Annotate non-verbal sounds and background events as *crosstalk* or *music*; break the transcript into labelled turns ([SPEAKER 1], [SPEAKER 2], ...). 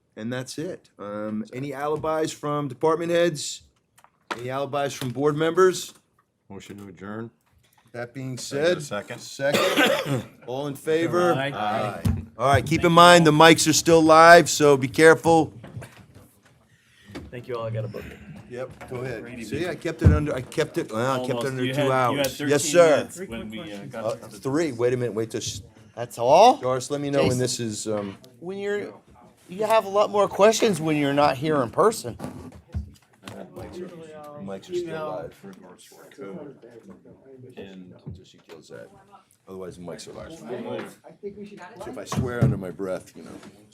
[SPEAKER 1] And that's it. Um, any alibis from department heads? Any alibis from board members?
[SPEAKER 2] Motion to adjourn.
[SPEAKER 1] That being said,
[SPEAKER 2] Second.
[SPEAKER 3] *coughs*
[SPEAKER 1] second, all in favor?
[SPEAKER 3] Aye. Aye.
[SPEAKER 1] All right, keep in mind, the mics are still live, so be careful.
[SPEAKER 3] Thank you all. I got a book.
[SPEAKER 1] Yep, go ahead.
[SPEAKER 3] Brady
[SPEAKER 1] See, I kept it under, I kept it, well, I kept
[SPEAKER 3] Almost.
[SPEAKER 1] it under
[SPEAKER 3] You
[SPEAKER 1] two
[SPEAKER 3] had- you had
[SPEAKER 1] hours. Yes,
[SPEAKER 3] 13
[SPEAKER 1] sir.
[SPEAKER 3] minutes When we uh,
[SPEAKER 1] Uh,
[SPEAKER 3] got to the
[SPEAKER 1] Three, wait a minute, wait till, sh-
[SPEAKER 4] That's all.
[SPEAKER 1] Doris, let me know when this is, um,
[SPEAKER 4] When you're, you have a lot more questions when you're not here in person.
[SPEAKER 1] mics are still live.
[SPEAKER 2] And
[SPEAKER 1] Just she kills that. Otherwise, the mics are live.
[SPEAKER 5] I think we should.
[SPEAKER 1] If I swear under my breath, you know.